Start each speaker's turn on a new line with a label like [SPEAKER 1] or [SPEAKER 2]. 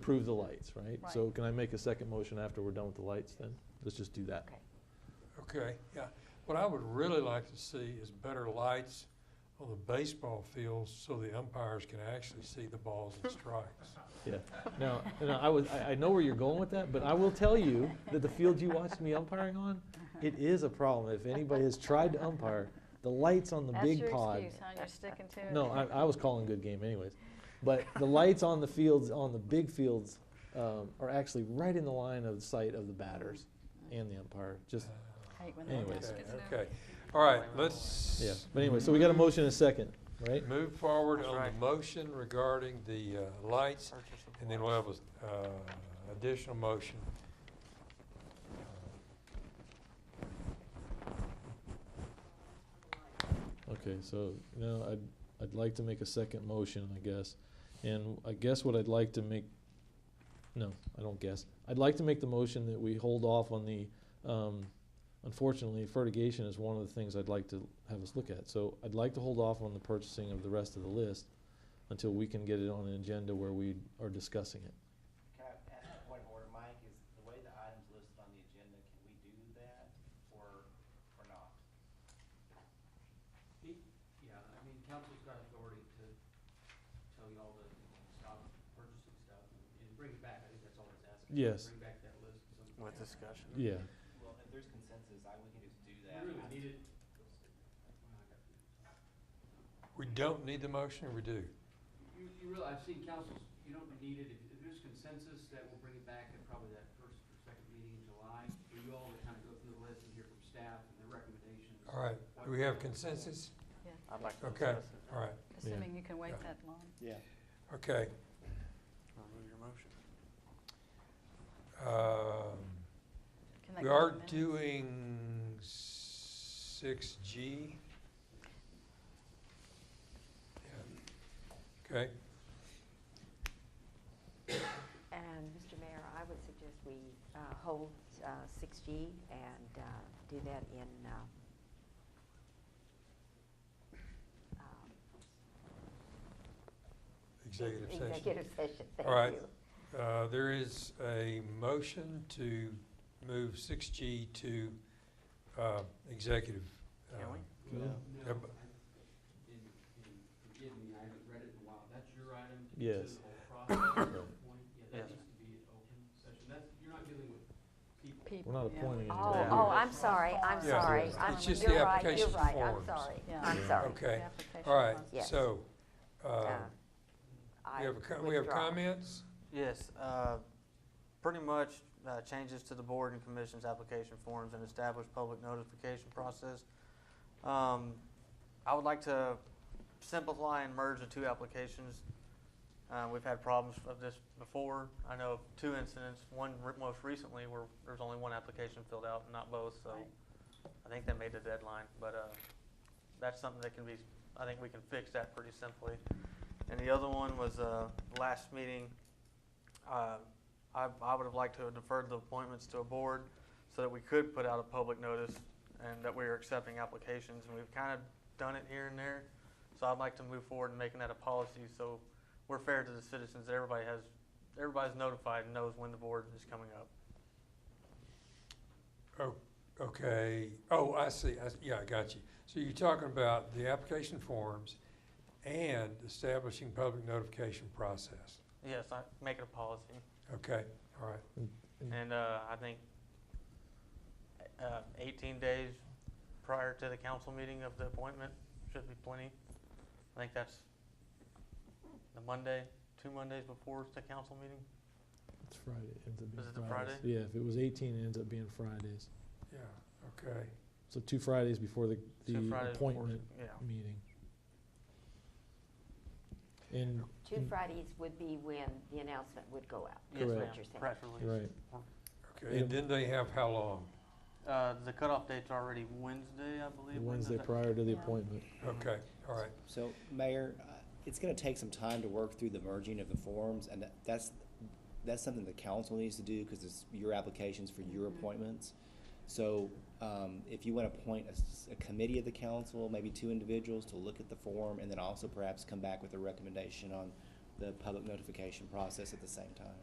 [SPEAKER 1] approve the lights, right?
[SPEAKER 2] Right.
[SPEAKER 1] So can I make a second motion after we're done with the lights then? Let's just do that.
[SPEAKER 2] Okay.
[SPEAKER 3] Okay, yeah. What I would really like to see is better lights on the baseball fields so the umpires can actually see the balls and strikes.
[SPEAKER 1] Yeah. Now, now, I was, I, I know where you're going with that, but I will tell you that the field you watched me umpiring on,
[SPEAKER 2] Uh-huh.
[SPEAKER 1] it is a problem. If anybody has tried to umpire, the lights on the
[SPEAKER 2] That's
[SPEAKER 1] big
[SPEAKER 2] your
[SPEAKER 1] pod.
[SPEAKER 2] excuse, huh? You're sticking to it.
[SPEAKER 1] No, I, I was calling good game anyways. But the lights on the fields, on the big fields, um, are actually right in the line of sight of the batters and the umpire, just,
[SPEAKER 2] Hate when that
[SPEAKER 1] anyways.
[SPEAKER 3] Okay,
[SPEAKER 2] happens.
[SPEAKER 3] okay. All right, let's.
[SPEAKER 1] yeah. But anyway, so we got a motion and a second, right?
[SPEAKER 3] Move forward on
[SPEAKER 4] Right.
[SPEAKER 3] the motion regarding the uh, lights,
[SPEAKER 4] Purchase of
[SPEAKER 3] and then we'll
[SPEAKER 4] lights.
[SPEAKER 3] have an additional motion.
[SPEAKER 1] Okay, so now I'd, I'd like to make a second motion, I guess. And I guess what I'd like to make, no, I don't guess. I'd like to make the motion that we hold off on the, um, unfortunately, fertigation is one of the things I'd like to have us look at. So I'd like to hold off on the purchasing of the rest of the list until we can get it on an agenda where we are discussing it.
[SPEAKER 5] Can I ask a point of order, Mike, is the way the items listed on the agenda, can we do that or, or not?
[SPEAKER 6] Yeah, I mean, council's got authority to tell y'all to stop purchasing stuff and bring it back, I think that's all it's asking.
[SPEAKER 1] Yes.
[SPEAKER 6] Bring back that list at some point.
[SPEAKER 4] With discussion.
[SPEAKER 1] Yeah,
[SPEAKER 5] Well, if there's consensus, I, we can just do
[SPEAKER 6] We
[SPEAKER 5] that.
[SPEAKER 6] really need it.
[SPEAKER 3] We don't need the motion, or we do?
[SPEAKER 6] You, you realize, I've seen councils, you don't need it, if, if there's consensus that we'll bring it back at probably that first or second meeting in July, for you all to kind of go through the list and hear from staff and their recommendations.
[SPEAKER 3] All right, do we have consensus?
[SPEAKER 4] I'd like to
[SPEAKER 3] Okay,
[SPEAKER 4] discuss it.
[SPEAKER 3] all right,
[SPEAKER 2] Assuming you can wait
[SPEAKER 3] Yeah.
[SPEAKER 2] that long.
[SPEAKER 3] okay.
[SPEAKER 4] Remove your motion.
[SPEAKER 3] Um,
[SPEAKER 2] Can that
[SPEAKER 3] We
[SPEAKER 2] go in
[SPEAKER 3] are
[SPEAKER 2] minutes?
[SPEAKER 3] doing six G. Okay,
[SPEAKER 7] And, Mr. Mayor, I would suggest we uh, hold uh, 6G and uh, do that in, um, um,
[SPEAKER 3] executive session.
[SPEAKER 7] executive session, thank
[SPEAKER 3] All right.
[SPEAKER 7] you.
[SPEAKER 3] Uh, There is a motion to move six G to uh, executive. uh,
[SPEAKER 4] Can we?
[SPEAKER 1] Yeah.
[SPEAKER 6] No,
[SPEAKER 3] Yep.
[SPEAKER 6] I- and, and forgive me, I haven't read it in a while, that's your item to consider
[SPEAKER 1] Yes.
[SPEAKER 6] the whole process at this point? Yeah,
[SPEAKER 4] Yes.
[SPEAKER 6] that needs to be an open session, that's, you're not dealing with people.
[SPEAKER 1] we're
[SPEAKER 2] People.
[SPEAKER 1] not
[SPEAKER 2] Yeah.
[SPEAKER 1] appointing
[SPEAKER 7] Oh,
[SPEAKER 1] anybody.
[SPEAKER 7] oh, I'm
[SPEAKER 6] Yeah.
[SPEAKER 7] sorry, I'm
[SPEAKER 3] Yeah.
[SPEAKER 7] sorry.
[SPEAKER 2] It's
[SPEAKER 7] I'm-
[SPEAKER 2] just
[SPEAKER 3] the
[SPEAKER 7] you're right,
[SPEAKER 3] application
[SPEAKER 7] You're right,
[SPEAKER 3] forms.
[SPEAKER 7] I'm sorry,
[SPEAKER 2] Yeah.
[SPEAKER 7] I'm
[SPEAKER 1] Yeah.
[SPEAKER 7] sorry.
[SPEAKER 3] Okay,
[SPEAKER 2] Application
[SPEAKER 3] all right,
[SPEAKER 2] process.
[SPEAKER 7] Yes.
[SPEAKER 3] so, uh,
[SPEAKER 7] Uh,
[SPEAKER 3] we
[SPEAKER 7] I
[SPEAKER 3] have, a co- we have
[SPEAKER 7] withdraw.
[SPEAKER 3] comments?
[SPEAKER 4] Yes, uh, pretty much uh, changes to the board and commission's application forms and establish public notification process. Um, I would like to simplify and merge the two applications. Uh, We've had problems of this before. I know of two incidents, one re- most recently where there was only one application filled out, not both, so
[SPEAKER 2] Right.
[SPEAKER 4] I think that made the deadline, but uh, that's something that can be, I think we can fix that pretty simply. And the other one was uh, last meeting, uh, I, I would have liked to have deferred the appointments to a board so that we could put out a public notice and that we are accepting applications, and we've kind of done it here and there. So I'd like to move forward in making that a policy, so we're fair to the citizens, that everybody has, everybody's notified and knows when the board is coming up.
[SPEAKER 3] Oh, Okay, oh, I see, I, s- yeah, I got you. So you're talking about the application forms and establishing public notification process.
[SPEAKER 4] Yes, I, make it a policy.
[SPEAKER 3] Okay, all right.
[SPEAKER 1] Mm-hmm.
[SPEAKER 4] And, uh, I think, uh, eighteen days prior to the council meeting of the appointment should be plenty. I think that's the Monday, two Mondays before the council meeting.
[SPEAKER 1] It's Friday, ends up being
[SPEAKER 4] Was it the
[SPEAKER 1] Fridays.
[SPEAKER 4] Friday?
[SPEAKER 1] Yeah, if it was eighteen, it ends up being Fridays.
[SPEAKER 3] Yeah, okay.
[SPEAKER 1] So two Fridays before the,
[SPEAKER 4] Two
[SPEAKER 1] the
[SPEAKER 4] Fridays before-
[SPEAKER 1] appointment
[SPEAKER 4] Yeah.
[SPEAKER 1] meeting. And,
[SPEAKER 7] Two Fridays would be when the announcement would go out.
[SPEAKER 4] Yes,
[SPEAKER 1] Correct.
[SPEAKER 4] ma'am.
[SPEAKER 7] What you're saying.
[SPEAKER 4] Press release.
[SPEAKER 1] right,
[SPEAKER 3] Okay, and then they have how long?
[SPEAKER 4] Uh, the cutoff date's already Wednesday, I believe.
[SPEAKER 1] Wednesday
[SPEAKER 4] Wednesday.
[SPEAKER 1] prior to the
[SPEAKER 2] Yeah.
[SPEAKER 1] appointment.
[SPEAKER 3] Okay, all right.
[SPEAKER 5] So, Mayor, uh, it's gonna take some time to work through the merging of the forms, and that- that's, that's something the council needs to do, because it's your applications for
[SPEAKER 6] Mm-hmm.
[SPEAKER 5] your appointments. So, um, if you wanna appoint a, s- a committee of the council, maybe two individuals, to look at the form, and then also perhaps come back with a recommendation on the public notification process at the same time.